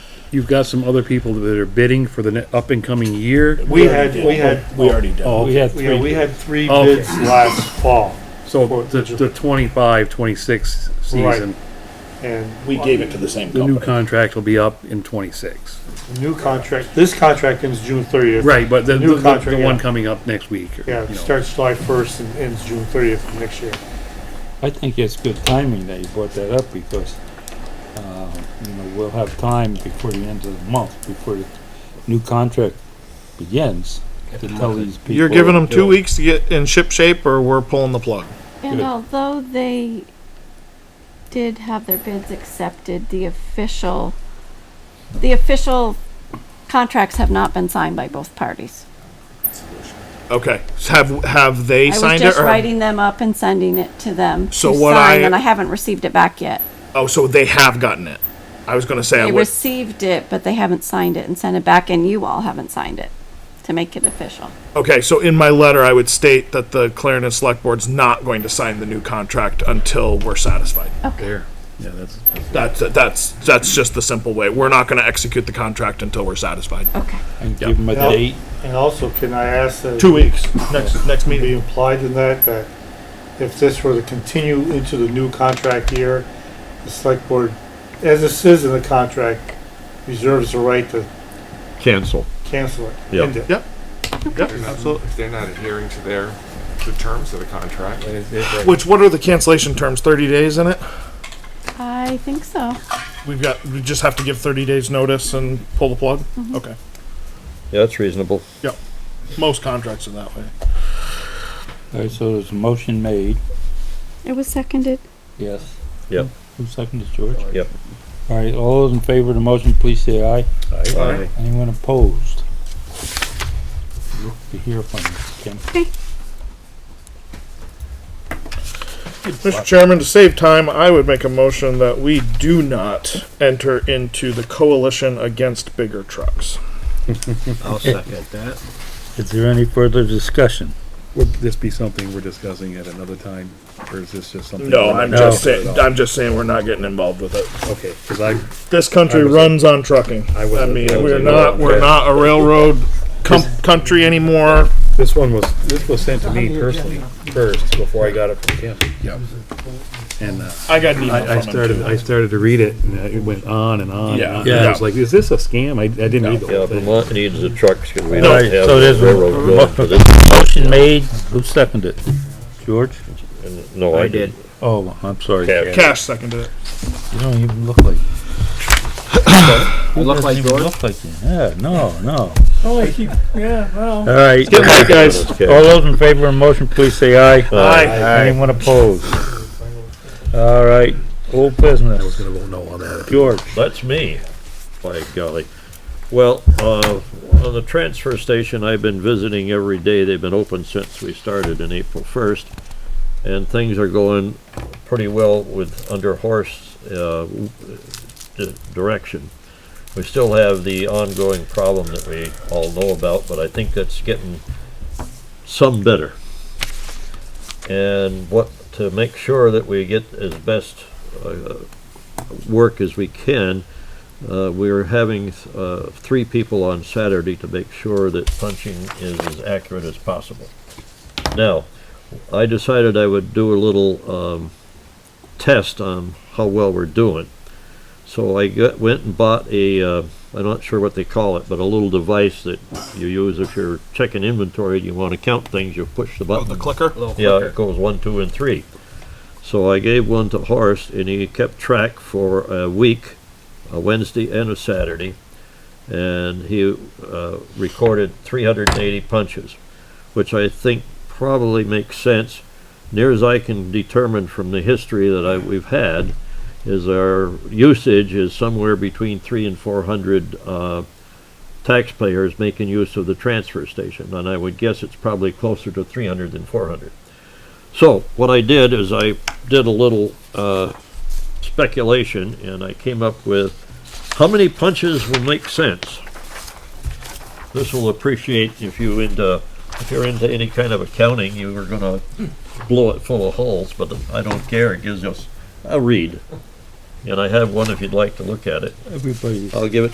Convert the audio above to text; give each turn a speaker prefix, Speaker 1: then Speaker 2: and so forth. Speaker 1: you've got some other people that are bidding for the up and coming year.
Speaker 2: We had, we had,
Speaker 3: We already did.
Speaker 1: Oh,
Speaker 3: We had three.
Speaker 2: yeah, we had three
Speaker 1: Okay.
Speaker 2: bids last fall,
Speaker 1: So the, the 25, 26 season,
Speaker 2: Right. and
Speaker 3: We gave it to the same
Speaker 1: the
Speaker 3: company.
Speaker 1: new contract will be up in 26.
Speaker 2: the new contract, this contract ends June thirtieth.
Speaker 1: Right, but the,
Speaker 2: New
Speaker 1: the- the
Speaker 2: contract, yeah.
Speaker 1: one coming up next week. or,
Speaker 2: Yeah,
Speaker 1: you
Speaker 2: it
Speaker 1: know.
Speaker 2: starts July first and ends June thirtieth of next year.
Speaker 4: I think it's good timing that you brought that up because, uh, you know, we'll have time before the end of the month, before the new contract begins, to tell these people.
Speaker 5: You're giving them two weeks to get in ship shape, or we're pulling the plug.
Speaker 6: And
Speaker 4: Good.
Speaker 6: although they did have their bids accepted, the official, the official contracts have not been signed by both parties.
Speaker 5: Okay. So Have have they
Speaker 6: I was
Speaker 5: signed it?
Speaker 6: just
Speaker 5: Or,
Speaker 6: writing them up and sending it to them
Speaker 5: So
Speaker 6: to
Speaker 5: what
Speaker 6: sign,
Speaker 5: I-
Speaker 6: and I haven't received it back yet.
Speaker 5: Oh, so they have gotten it. I was going to say I
Speaker 6: They
Speaker 5: would.
Speaker 6: received it, but they haven't signed it and sent it back, and you all haven't signed it to make it official.
Speaker 5: Okay, so in my letter, I would state that the Clarendon Select Board's not going to sign the new contract until we're satisfied.
Speaker 1: There, yeah, that's,
Speaker 5: That's that's that's just the simple way. We're not going to execute the contract until we're satisfied.
Speaker 6: Okay.
Speaker 4: And give them a
Speaker 2: Yeah.
Speaker 4: date.
Speaker 2: And also, can I ask that?
Speaker 5: Two weeks. Next next
Speaker 2: be
Speaker 5: meeting.
Speaker 2: implied in that, that if this were to continue into the new contract year, the select board, as it says in the contract, reserves the right to
Speaker 7: Cancel.
Speaker 2: cancel it.
Speaker 7: Yeah.
Speaker 2: end it.
Speaker 5: Yep. Yep.
Speaker 8: Absolutely. If they're not adhering to their, the terms of the contract. then it's- it's-
Speaker 5: Which what are the cancellation terms? Thirty days in it.
Speaker 6: I think so.
Speaker 5: We've got we just have to give thirty days notice and pull the plug. Okay.
Speaker 7: Yeah, that's reasonable.
Speaker 5: Yep. Most contracts are that way.
Speaker 4: All right, so there's a motion made.
Speaker 6: It was seconded.
Speaker 4: Yes.
Speaker 7: Yep.
Speaker 4: Who seconded, George?
Speaker 7: Yep.
Speaker 4: All right, all those in favor of the motion, please say aye.
Speaker 7: Aye.
Speaker 4: Anyone opposed? Look to hear from you, Kim.
Speaker 5: Mr. Chairman, to save time, I would make a motion that we do not enter into the coalition against bigger trucks.
Speaker 7: I'll second that.
Speaker 4: Is there any further discussion?
Speaker 1: would this be something we're discussing at another time, or is this just something?
Speaker 5: No,
Speaker 1: we're not
Speaker 5: I'm just
Speaker 1: discussing
Speaker 5: saying,
Speaker 1: at all?
Speaker 5: I'm just saying we're not getting involved with it.
Speaker 1: Okay, cause I,
Speaker 5: This country
Speaker 1: I was-
Speaker 5: runs on trucking.
Speaker 1: I
Speaker 5: I
Speaker 1: was-
Speaker 5: mean,
Speaker 1: I was
Speaker 5: we're
Speaker 1: in-
Speaker 5: not, we're
Speaker 1: okay.
Speaker 5: not a railroad com- country anymore.
Speaker 1: this one was, this was sent to me personally first, before I got it from Kim. Yep. And, uh,
Speaker 5: I got an email
Speaker 1: I, I
Speaker 5: from him
Speaker 1: started,
Speaker 5: too.
Speaker 1: I started to read it, and it went on and on and
Speaker 5: Yeah.
Speaker 1: on. And I
Speaker 4: Yeah.
Speaker 1: was like, is this a scam? I, I didn't read the
Speaker 7: Yeah,
Speaker 1: whole thing.
Speaker 7: Vermont needs the trucks because we
Speaker 4: All
Speaker 7: don't
Speaker 4: right,
Speaker 7: have
Speaker 4: so
Speaker 7: the
Speaker 4: there's a
Speaker 7: railroad going for this.
Speaker 4: Motion made, who seconded? George?
Speaker 7: And No, I did.
Speaker 4: Oh, I'm sorry.
Speaker 7: Cash.
Speaker 5: Cash seconded it.
Speaker 4: You don't even look like.
Speaker 3: You look
Speaker 4: doesn't
Speaker 3: like
Speaker 4: even
Speaker 3: George?
Speaker 4: Look like you, yeah, no, no.
Speaker 2: Oh, I keep, yeah, well.
Speaker 4: All right,
Speaker 5: Get my guys.
Speaker 4: all those in favor of the motion, please say aye.
Speaker 5: Aye.
Speaker 4: Anyone opposed? All right, old business.
Speaker 1: I was gonna vote no on that.
Speaker 4: George,
Speaker 7: That's me, by golly. Well, uh, on the transfer station, I've been visiting every day. They've been open since we started in April first. And things are going pretty well with under horse, uh, w- di- direction. We still have the ongoing problem that we all know about, but I think that's getting some better. And what, to make sure that we get as best, uh, work as we can. Uh, we are having uh, three people on Saturday to make sure that punching is as accurate as possible. Now, I decided I would do a little um, test on how well we're doing. So I got, went and bought a, uh, I'm not sure what they call it, but a little device that you use if you're checking inventory and you want to count things, you push the button.
Speaker 5: clicker?
Speaker 7: Yeah, it goes one, two, and three. So I gave one to Horace, and he kept track for a week, a Wednesday and a Saturday, and he uh, recorded 380 punches, which I think probably makes sense. Near as I can determine from the history that I, we've had, is our usage is somewhere between three and 400 uh, taxpayers making use of the transfer station, and I would guess it's probably closer to 300 than 400. So what I did is I did a little uh, speculation, and I came up with how many punches will make sense. This will appreciate if you into if you're into any kind of accounting, you are gonna blow it full of holes, but I don't care. It gives us a read, and I have one if you'd like to look at it.
Speaker 4: everybody.
Speaker 7: I'll give it